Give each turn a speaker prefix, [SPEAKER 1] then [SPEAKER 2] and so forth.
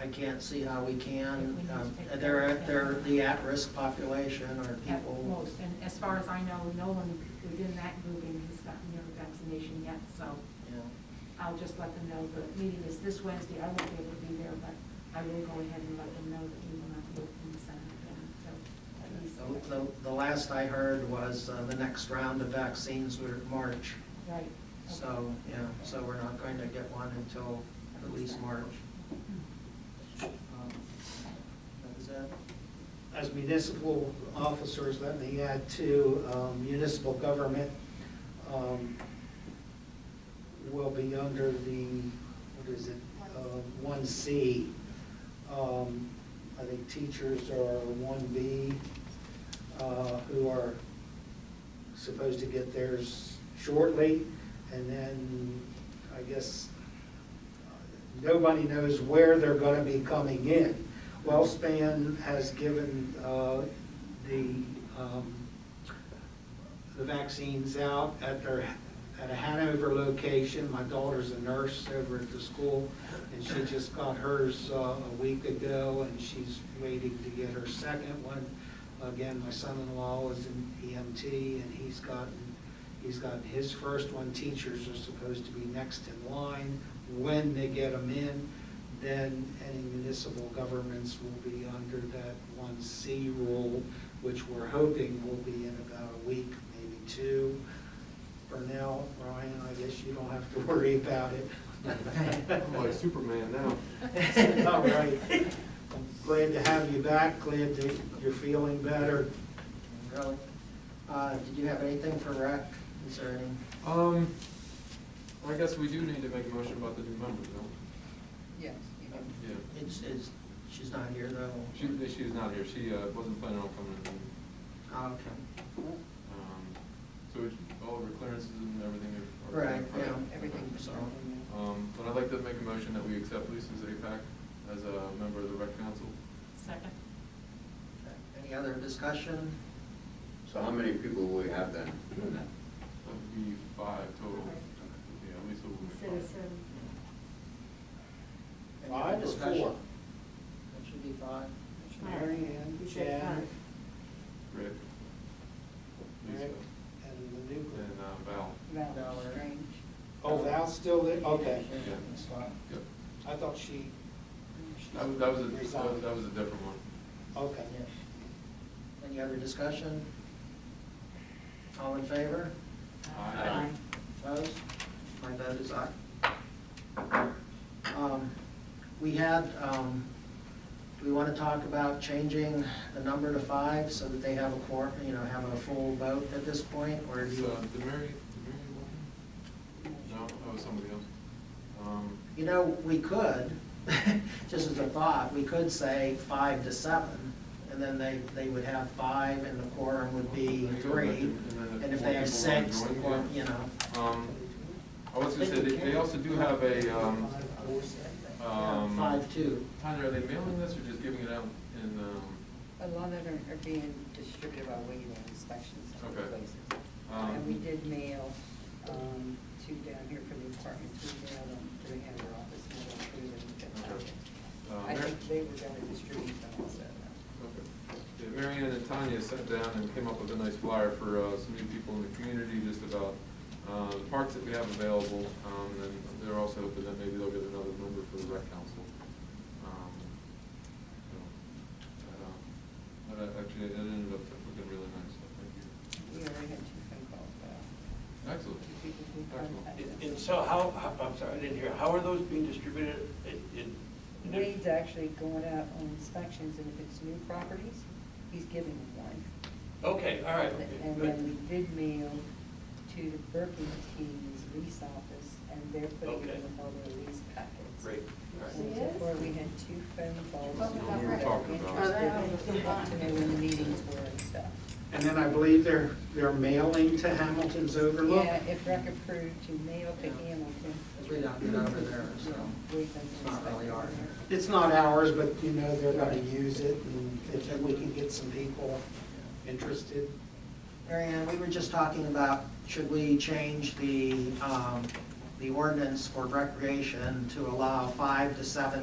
[SPEAKER 1] I can't see how we can, um, they're, they're the at-risk population or
[SPEAKER 2] at
[SPEAKER 1] people.
[SPEAKER 2] most. And as far as I know, no one within that grouping has gotten their vaccination yet, so
[SPEAKER 1] you know.
[SPEAKER 2] I'll just let them know the meeting is this Wednesday. I won't be able to be there, but I will go ahead and let them know that we will not be open the center again until at least.
[SPEAKER 1] The- The, the last I heard was uh, the next round of vaccines were March,
[SPEAKER 2] Right. okay.
[SPEAKER 1] so, yeah, so we're not going to get one until at least March. Um, That was it.
[SPEAKER 3] As municipal officers, let me add to um, municipal government um, will be under the, what is it, uh, one C. Um, I think teachers are one B, uh, who are supposed to get theirs shortly. And then, I guess, nobody knows where they're gonna be coming in. Wellspan has given uh, the, um, the vaccines out at their, at a Hanover location. My daughter's a nurse over at the school, and she just got hers uh, a week ago, and she's waiting to get her second one. Again, my son-in-law is an EMT, and he's gotten He's gotten his first one, teachers are supposed to be next in line when they get them in. Then any municipal governments will be under that one C rule, which we're hoping will be in about a week, maybe two. For now, Ryan, I guess you don't have to worry about it.
[SPEAKER 4] I'm like Superman now.
[SPEAKER 3] All right. I'm Glad to have you back, glad that you're feeling better.
[SPEAKER 1] Really? Uh, Did you have anything for rec? Is there any?
[SPEAKER 4] Um, I guess we do need to make a motion about the new members, though.
[SPEAKER 5] Yes, you do.
[SPEAKER 4] Yeah.
[SPEAKER 1] It's, it's, she's not here though.
[SPEAKER 4] She, she's not here, she, uh, wasn't planning on coming in.
[SPEAKER 1] Oh, Okay.
[SPEAKER 4] Um, so we- all of her clearances and everything are. are-
[SPEAKER 1] Right, yeah.
[SPEAKER 5] Everything was
[SPEAKER 1] So,
[SPEAKER 5] done. in
[SPEAKER 4] Um, but I'd like to make a motion that we accept Lisa's APAC as a member of the rec council.
[SPEAKER 2] Second.
[SPEAKER 1] Any other discussion?
[SPEAKER 6] So how many people will we have then?
[SPEAKER 4] That would be five total. Yeah, Lisa will be
[SPEAKER 7] Instead of seven.
[SPEAKER 4] five.
[SPEAKER 1] Any other
[SPEAKER 3] Five or
[SPEAKER 1] discussion?
[SPEAKER 3] four?
[SPEAKER 1] That should be five.
[SPEAKER 3] Mary Ann,
[SPEAKER 7] You said
[SPEAKER 3] Jan,
[SPEAKER 4] Rick. Lisa.
[SPEAKER 3] Rick, and the new group.
[SPEAKER 4] And, uh, Val.
[SPEAKER 5] Valid
[SPEAKER 1] Valid.
[SPEAKER 5] Strange.
[SPEAKER 1] uh,
[SPEAKER 3] Oh, Val's still there? Okay.
[SPEAKER 4] Yeah.
[SPEAKER 3] That's fine.
[SPEAKER 4] Yep.
[SPEAKER 3] I thought she.
[SPEAKER 4] That was, that was, a- that was-
[SPEAKER 3] Resigned.
[SPEAKER 4] that was a different one.
[SPEAKER 3] Okay.
[SPEAKER 1] Yeah. Any other discussion? All in favor?
[SPEAKER 4] Aye.
[SPEAKER 1] Opposed? My vote is aye. Um, We had, um, do we want to talk about changing the number to five so that they have a quorum, you know, have a full vote at this point, or do
[SPEAKER 4] Is,
[SPEAKER 1] you?
[SPEAKER 4] uh, did Mary, did Mary walk in? No, that was somebody else. Um,
[SPEAKER 1] You know, we could, just as a thought, we could say five to seven, and then they, they would have five, and the quorum would be three. And if they have six, the quorum, you know,
[SPEAKER 4] um, I was gonna say, they, they also do have a, um,
[SPEAKER 1] yeah,
[SPEAKER 4] um.
[SPEAKER 1] five, two.
[SPEAKER 4] Tyler, are they mailing this or just giving it out in, um,
[SPEAKER 5] A lot of them are being distributed by way of inspections in other
[SPEAKER 4] Okay.
[SPEAKER 5] places.
[SPEAKER 4] Um,
[SPEAKER 5] And we did mail, um, two down here for the apartments, we mailed them to the Hanover office, and then we didn't get them.
[SPEAKER 4] Okay. Uh,
[SPEAKER 5] I
[SPEAKER 4] Mary-
[SPEAKER 5] think they were gonna distribute them also.
[SPEAKER 4] okay. Yeah, Mary Ann and Tanya sat down and came up with a nice flyer for, uh, some new people in the community, just about, uh, the parks that we have available. Um, and they're also hoping that maybe they'll get another member for the rec council. Um, so, uh, But I- actually, it ended up looking really nice, so thank you.
[SPEAKER 5] We already had two phone calls, but
[SPEAKER 4] Excellent.
[SPEAKER 5] two people who
[SPEAKER 4] Excellent.
[SPEAKER 5] contacted
[SPEAKER 8] And-
[SPEAKER 5] us.
[SPEAKER 8] And so how, how- I'm sorry, I didn't hear, how are those being distributed? It- it- and if-
[SPEAKER 5] Wade's actually going out on inspections, and if it's new properties, he's giving them one.
[SPEAKER 8] Okay, all right. okay,
[SPEAKER 5] And
[SPEAKER 8] good.
[SPEAKER 5] then we did mail to the Burlington's lease office, and they're putting it
[SPEAKER 8] Okay.
[SPEAKER 5] in the Harbor lease packets.
[SPEAKER 8] Great, all right.
[SPEAKER 5] So Before, we had two phone calls.
[SPEAKER 7] What was
[SPEAKER 5] from
[SPEAKER 7] that
[SPEAKER 5] people
[SPEAKER 7] record?
[SPEAKER 4] Talking about-
[SPEAKER 5] Interested, in- wanted to know when Oh, the meetings were and stuff.
[SPEAKER 3] And then I believe they're, they're mailing to Hamilton's Overlook.
[SPEAKER 5] Yeah, if rec approved, you mail to Hamilton.
[SPEAKER 1] Because we don't get over there, so
[SPEAKER 5] We've been
[SPEAKER 1] it's not really ours.
[SPEAKER 3] It's not ours, but you know, they're gonna use it, and if we can get some people interested.
[SPEAKER 1] Marianne, we were just talking about, should we change the, um, the ordinance for recreation to allow five to seven